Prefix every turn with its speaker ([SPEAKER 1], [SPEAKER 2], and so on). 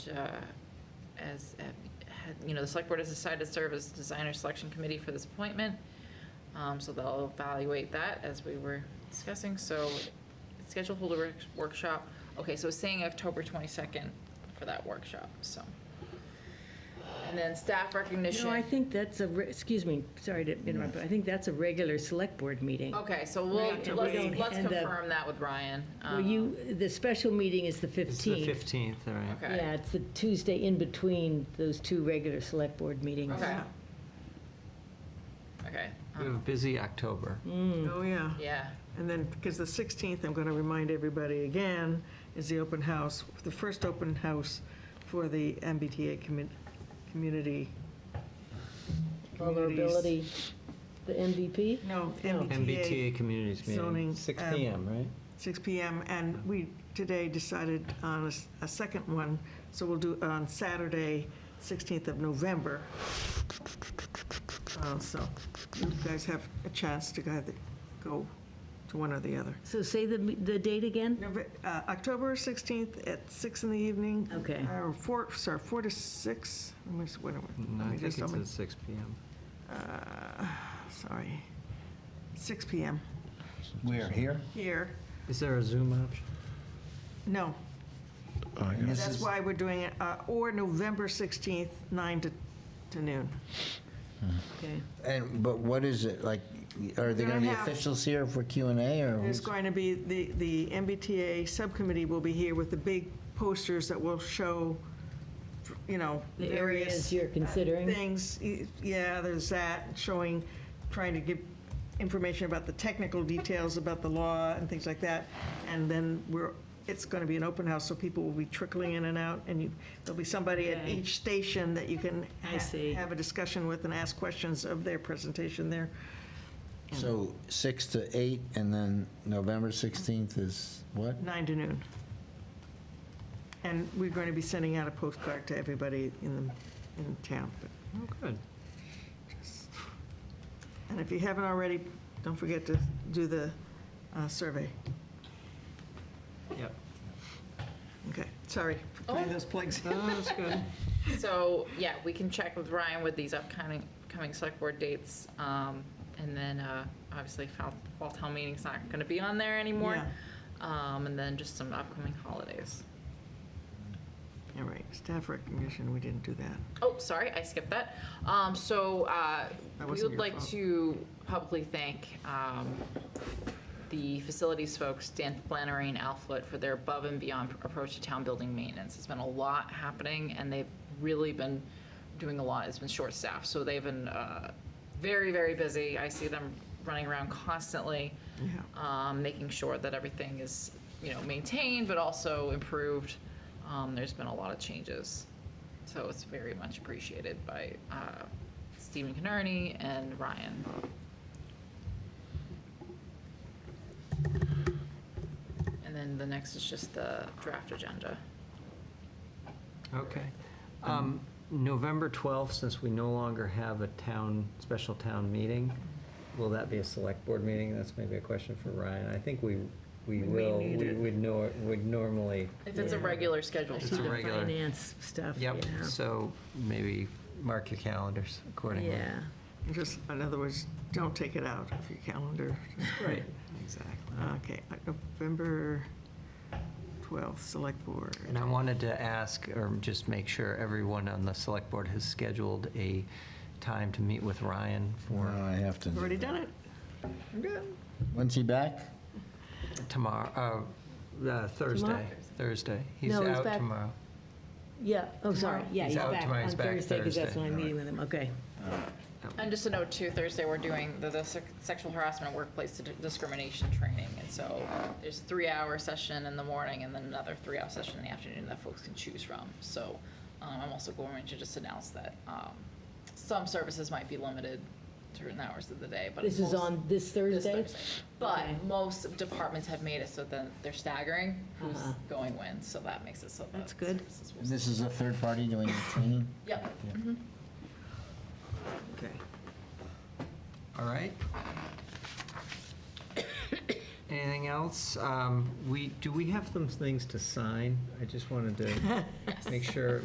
[SPEAKER 1] uh, as, uh, had- you know, the select board has decided to serve as designer selection committee for this appointment. Um, So they'll evaluate that as we were discussing, so schedule hold a work- workshop. Okay, so it's saying October 22nd for that workshop, so. And then staff recognition.
[SPEAKER 2] No, I think that's a, re- excuse me, sorry to interrupt, but I think that's a regular select board meeting.
[SPEAKER 1] Okay, so we'll,
[SPEAKER 2] Right,
[SPEAKER 1] let's
[SPEAKER 2] and we don't-
[SPEAKER 1] let's
[SPEAKER 2] and the-
[SPEAKER 1] confirm that with Ryan.
[SPEAKER 2] Well,
[SPEAKER 1] Um,
[SPEAKER 2] you, the special meeting is the
[SPEAKER 3] It's the
[SPEAKER 2] 15th.
[SPEAKER 3] 15th, all right.
[SPEAKER 1] Okay.
[SPEAKER 2] Yeah, it's the Tuesday in between those two regular select board meetings.
[SPEAKER 1] Um, Okay. Okay.
[SPEAKER 3] We have a
[SPEAKER 1] um,
[SPEAKER 3] busy October.
[SPEAKER 2] Mm.
[SPEAKER 4] Oh, yeah.
[SPEAKER 1] Yeah,
[SPEAKER 4] And then, because the 16th, I'm going to remind everybody again, is the open house, the first open house for the MBTA commu- community.
[SPEAKER 2] Vulnerability, the MVP?
[SPEAKER 4] No, MBTA,
[SPEAKER 3] MBTA Communities
[SPEAKER 4] zoning,
[SPEAKER 3] Meeting, 6
[SPEAKER 4] um,
[SPEAKER 3] PM, right?
[SPEAKER 4] 6 PM. And we today decided on a s- a second one, so we'll do it on Saturday, 16th of November. Uh, So you guys have a chance to either go to one or the other.
[SPEAKER 2] So say the, the date again?
[SPEAKER 4] Nove- uh, October 16th at six in the evening.
[SPEAKER 2] Okay.
[SPEAKER 4] Or 4, sorry, 4 to 6. Let me just, wait a minute.
[SPEAKER 3] No,
[SPEAKER 4] Let
[SPEAKER 3] Mm, I
[SPEAKER 4] me
[SPEAKER 3] think
[SPEAKER 4] just,
[SPEAKER 3] it's
[SPEAKER 4] let me-
[SPEAKER 3] at 6 PM.
[SPEAKER 4] uh, sorry. 6 PM
[SPEAKER 5] We're here?
[SPEAKER 4] here.
[SPEAKER 3] Is there a Zoom option?
[SPEAKER 4] No,
[SPEAKER 5] And this
[SPEAKER 4] that's
[SPEAKER 5] is-
[SPEAKER 4] why we're doing it, uh, or November 16th, 9 to to noon.
[SPEAKER 2] Okay.
[SPEAKER 5] And, but what is it, like, are there gonna be
[SPEAKER 4] Gonna have-
[SPEAKER 5] officials here for Q and A, or?
[SPEAKER 4] There's
[SPEAKER 5] who's-
[SPEAKER 4] going to be, the the MBTA subcommittee will be here with the big posters that will show, you know,
[SPEAKER 2] The
[SPEAKER 4] various
[SPEAKER 2] areas you're considering?
[SPEAKER 4] things, y- yeah, there's that, showing, trying to give information about the technical details about the law and things like that. And then we're, it's going to be an open house, so people will be trickling in and out, and you, there'll be somebody at
[SPEAKER 2] Okay.
[SPEAKER 4] each station that you can
[SPEAKER 2] I
[SPEAKER 4] ha-
[SPEAKER 2] see.
[SPEAKER 4] have a discussion with and ask questions of their presentation there.
[SPEAKER 5] So six to eight, and then November 16th is what?
[SPEAKER 4] nine to noon. And we're going to be sending out a postcard to everybody in the, in town. but-
[SPEAKER 3] Oh, good.
[SPEAKER 4] And if you haven't already, don't forget to do the uh, survey.
[SPEAKER 3] Yep.
[SPEAKER 4] Okay, sorry for putting
[SPEAKER 1] Oh.
[SPEAKER 4] those plugs in.
[SPEAKER 3] Oh, that's good.
[SPEAKER 1] so, yeah, we can check with Ryan with these upcoming, coming select board dates. Um, and then, uh, obviously, fall, fall town meeting's not gonna be on there anymore.
[SPEAKER 4] Yeah.
[SPEAKER 1] Um, and then just some upcoming holidays.
[SPEAKER 4] All right, staff recognition, we didn't do that.
[SPEAKER 1] Oh, sorry, I skipped that. Um, so, uh,
[SPEAKER 4] That
[SPEAKER 1] we
[SPEAKER 4] wasn't
[SPEAKER 1] would
[SPEAKER 4] your
[SPEAKER 1] like
[SPEAKER 4] fault.
[SPEAKER 1] to publicly thank, um, the facilities folks, Dan Flannery and Al Foote, for their above and beyond approach to town building maintenance. It's been a lot happening, and they've really been doing a lot. It's been short staffed, so they've been, uh, very, very busy. I see them running around constantly
[SPEAKER 4] Yeah.
[SPEAKER 1] um, making sure that everything is, you know, maintained but also improved. Um, there's been a lot of changes, so it's very much appreciated by uh, Stephen Canerney and Ryan. And then the next is just the draft agenda.
[SPEAKER 3] Okay. Um, November 12th, since we no longer have a town, special town meeting, will that be a select board meeting? That's maybe a question for Ryan. I think we,
[SPEAKER 4] We
[SPEAKER 3] we
[SPEAKER 4] may
[SPEAKER 3] will,
[SPEAKER 4] need
[SPEAKER 3] we
[SPEAKER 4] it.
[SPEAKER 3] would nor, would normally.
[SPEAKER 1] If it's a
[SPEAKER 2] Yeah.
[SPEAKER 1] regular scheduled
[SPEAKER 3] It's
[SPEAKER 2] See
[SPEAKER 3] a
[SPEAKER 2] the
[SPEAKER 1] time.
[SPEAKER 3] regular-
[SPEAKER 2] Finance stuff, yeah.
[SPEAKER 3] Yep, so maybe mark your calendars accordingly.
[SPEAKER 2] Yeah.
[SPEAKER 4] Just, in other words, don't take it out of your calendar.
[SPEAKER 3] Right, exactly.
[SPEAKER 4] Okay, uh, November 12th, Select Board.
[SPEAKER 3] And I wanted to ask, or just make sure everyone on the select board has scheduled a time to meet with Ryan
[SPEAKER 5] Well,
[SPEAKER 3] for
[SPEAKER 5] I have to. do
[SPEAKER 4] Already
[SPEAKER 5] that.
[SPEAKER 4] done it.
[SPEAKER 5] When's he back?
[SPEAKER 3] tomorrow, uh, uh, Thursday,
[SPEAKER 2] Tomorrow?
[SPEAKER 3] Thursday. He's
[SPEAKER 2] No, he's
[SPEAKER 3] out
[SPEAKER 2] back.
[SPEAKER 3] tomorrow.
[SPEAKER 2] Yeah, oh, sorry,
[SPEAKER 1] Tomorrow.
[SPEAKER 2] yeah,
[SPEAKER 3] He's
[SPEAKER 2] he's
[SPEAKER 3] out
[SPEAKER 2] back
[SPEAKER 3] tomorrow,
[SPEAKER 2] on
[SPEAKER 3] he's back
[SPEAKER 2] Thursday, because that's
[SPEAKER 3] Thursday.
[SPEAKER 2] when I'm meeting with him, okay.
[SPEAKER 1] And just a note too, Thursday, we're doing the, the sec- sexual harassment workplace di- discrimination training. And so there's a three-hour session in the morning and then another three-hour session in the afternoon that folks can choose from. So um, I'm also going to just announce that um, some services might be limited certain hours of the day, but.
[SPEAKER 2] This is
[SPEAKER 1] most-
[SPEAKER 2] on
[SPEAKER 1] this
[SPEAKER 2] this Thursday?
[SPEAKER 1] But
[SPEAKER 2] Okay.
[SPEAKER 1] most departments have made it so that they're staggering who's
[SPEAKER 2] Uh-huh.
[SPEAKER 1] going when, so that makes it so that.
[SPEAKER 2] That's good.
[SPEAKER 1] services will-
[SPEAKER 5] And This is a third party doing the training?
[SPEAKER 1] Yep.
[SPEAKER 4] Okay.
[SPEAKER 3] Oh, All right. anything else? Um, We, do we have some things to sign? I just wanted to make sure.